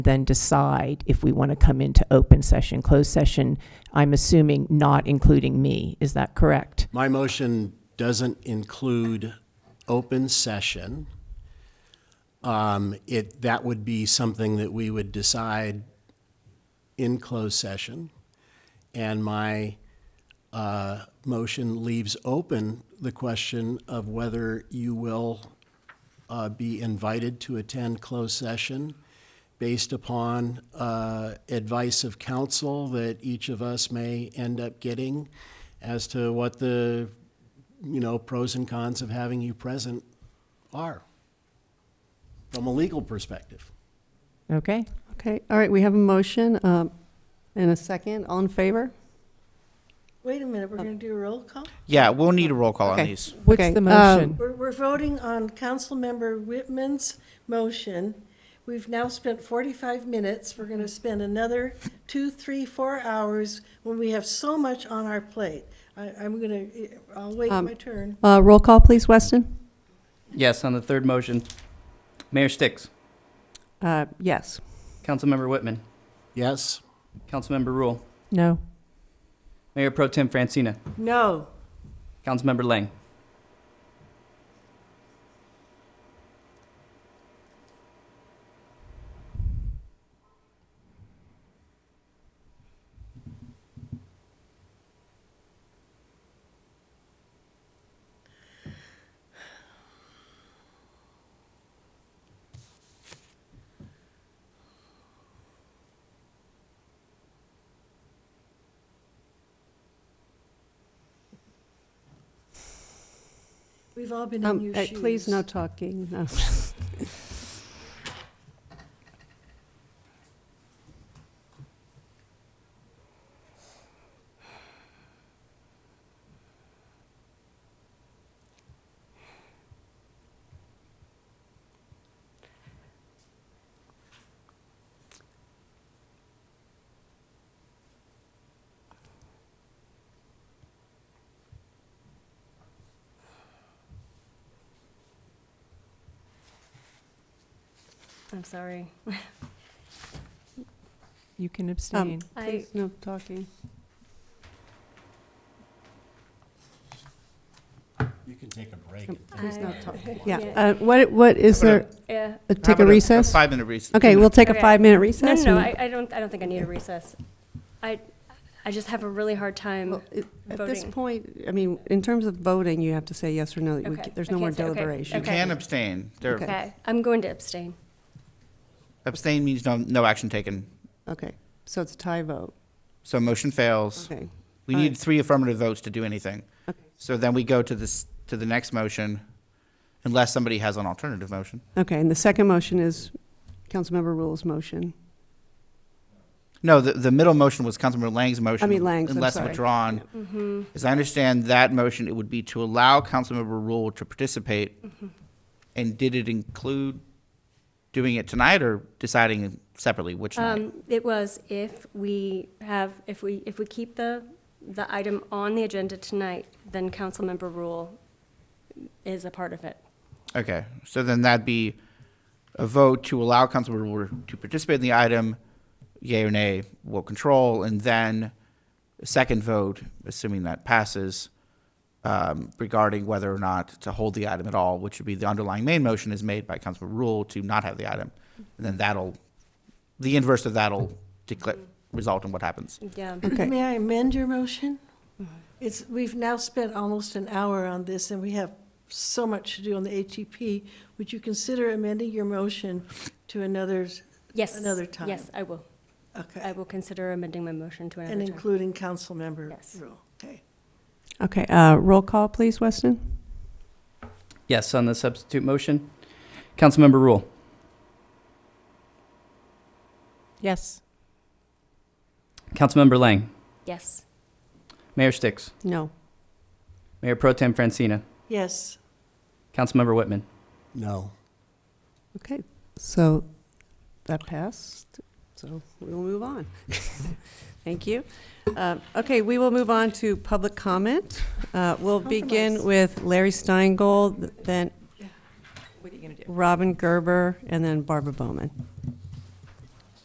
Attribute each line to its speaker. Speaker 1: then decide if we want to come into open session, closed session, I'm assuming not including me. Is that correct?
Speaker 2: My motion doesn't include open session. Um, It, that would be something that we would decide in closed session. And my uh, motion leaves open the question of whether you will uh, be invited to attend closed session based upon uh, advice of counsel that each of us may end up getting as to what the, you know, pros and cons of having you present are from a legal perspective.
Speaker 1: Okay?
Speaker 3: Okay, all right, we have a motion um, and a second. All in favor?
Speaker 4: Wait a minute,
Speaker 3: Oh.
Speaker 4: we're going to do a roll call?
Speaker 5: Yeah, we'll need a roll call on
Speaker 3: Okay.
Speaker 5: these.
Speaker 1: What's
Speaker 3: Okay,
Speaker 1: the
Speaker 3: um,
Speaker 1: motion?
Speaker 4: We're, we're voting on Councilmember Whitman's motion. We've now spent 45 minutes. We're going to spend another two, three, four hours when we have so much on our plate. I, I'm going to, I'll wait
Speaker 3: Um,
Speaker 4: my turn.
Speaker 3: Uh, Roll call, please, Weston?
Speaker 6: Yes, on the third motion. Mayor Sticks,
Speaker 3: Uh, Yes.
Speaker 6: Councilmember Whitman,
Speaker 2: Yes?
Speaker 6: Councilmember Rule,
Speaker 1: No.
Speaker 6: Mayor Pro Tem Francina,
Speaker 4: No.
Speaker 6: Councilmember Lang.
Speaker 4: We've all been in
Speaker 3: Um,
Speaker 4: your
Speaker 3: uh,
Speaker 4: shoes.
Speaker 3: Please, no talking. No.
Speaker 7: I'm sorry.
Speaker 1: You can
Speaker 3: Um,
Speaker 1: abstain.
Speaker 7: I,
Speaker 3: Please, no talking.
Speaker 2: You can take a break.
Speaker 3: and
Speaker 7: Please
Speaker 3: Um, no talk. Yeah,
Speaker 7: Yeah.
Speaker 3: uh, what, what is
Speaker 5: How about
Speaker 3: there,
Speaker 7: yeah.
Speaker 3: uh,
Speaker 5: How
Speaker 3: take
Speaker 5: about
Speaker 3: a recess?
Speaker 5: Five-minute recess.
Speaker 3: Okay, we'll take a
Speaker 7: Okay.
Speaker 3: five-minute
Speaker 7: No,
Speaker 3: recess.
Speaker 7: no, no,
Speaker 3: and-
Speaker 7: I, I don't, I don't think I need a recess. I, I just have a really hard time.
Speaker 3: Well, it- At this
Speaker 7: Voting.
Speaker 3: point, I mean, in terms of voting, you have to say yes or no. We
Speaker 7: Okay,
Speaker 3: ca- There's
Speaker 7: I
Speaker 3: no more
Speaker 7: can't say- okay,
Speaker 3: deliberation.
Speaker 5: You
Speaker 7: okay.
Speaker 5: can abstain. There-
Speaker 3: Okay.
Speaker 7: Okay, I'm going to abstain.
Speaker 5: Abstain means no, no action taken.
Speaker 3: Okay, so it's a tie vote.
Speaker 5: So motion fails.
Speaker 3: Okay,
Speaker 5: We
Speaker 3: All
Speaker 5: need
Speaker 3: right.
Speaker 5: three affirmative votes to do anything.
Speaker 3: Okay.
Speaker 5: So then we go to this, to the next motion, unless somebody has an alternative motion.
Speaker 3: okay, and the second motion is Councilmember Rule's motion.
Speaker 5: No, the, the middle motion was Councilmember Lang's motion.
Speaker 3: mean, Lang's, I'm
Speaker 5: Unless
Speaker 3: sorry. mm-hmm.
Speaker 5: withdrawn. As I understand that motion, it would be to allow Councilmember Rule to participate.
Speaker 3: Mm-hmm.
Speaker 5: And did it include doing it tonight or deciding separately which night?
Speaker 7: Um, it was if we have, if we, if we keep the, the item on the agenda tonight, then council member rule is a part of it.
Speaker 5: Okay, so then that'd be a vote to allow Councilmember Rule to participate in the item, yea or nay, will control, and then a second vote, assuming that passes, um, regarding whether or not to hold the item at all, which would be the underlying main motion is made by Councilmember Rule to not have the item. And then that'll, the inverse of that'll declare, result in what happens.
Speaker 7: Yeah.
Speaker 3: Okay,
Speaker 4: May I amend your motion?
Speaker 3: Uh.
Speaker 4: It's, we've now spent almost an hour on this, and we have so much to do on the HEP. Would you consider amending your motion to another,
Speaker 7: Yes.
Speaker 4: Another time.
Speaker 7: Yes, I will. I
Speaker 4: okay,
Speaker 7: will consider amending my motion to
Speaker 4: and
Speaker 7: another time.
Speaker 4: including council member
Speaker 7: Yes.
Speaker 4: rule? Okay.
Speaker 3: okay, uh, roll call, please, Weston?
Speaker 6: Yes, on the substitute motion. Councilmember Rule,
Speaker 1: Yes.
Speaker 6: Councilmember Lang,
Speaker 7: Yes.
Speaker 6: Mayor Sticks,
Speaker 3: No.
Speaker 6: Mayor Pro Tem Francina,
Speaker 4: Yes,
Speaker 6: Councilmember Whitman.
Speaker 2: No.
Speaker 3: Okay, so that passed, so we will move on. Thank you. Uh, Okay, we will move on to public comment. Uh, We'll begin
Speaker 4: Compromise.
Speaker 3: with Larry Steingold, then
Speaker 1: What are you going to do?
Speaker 3: Robin Gerber, and then Barbara Bowman.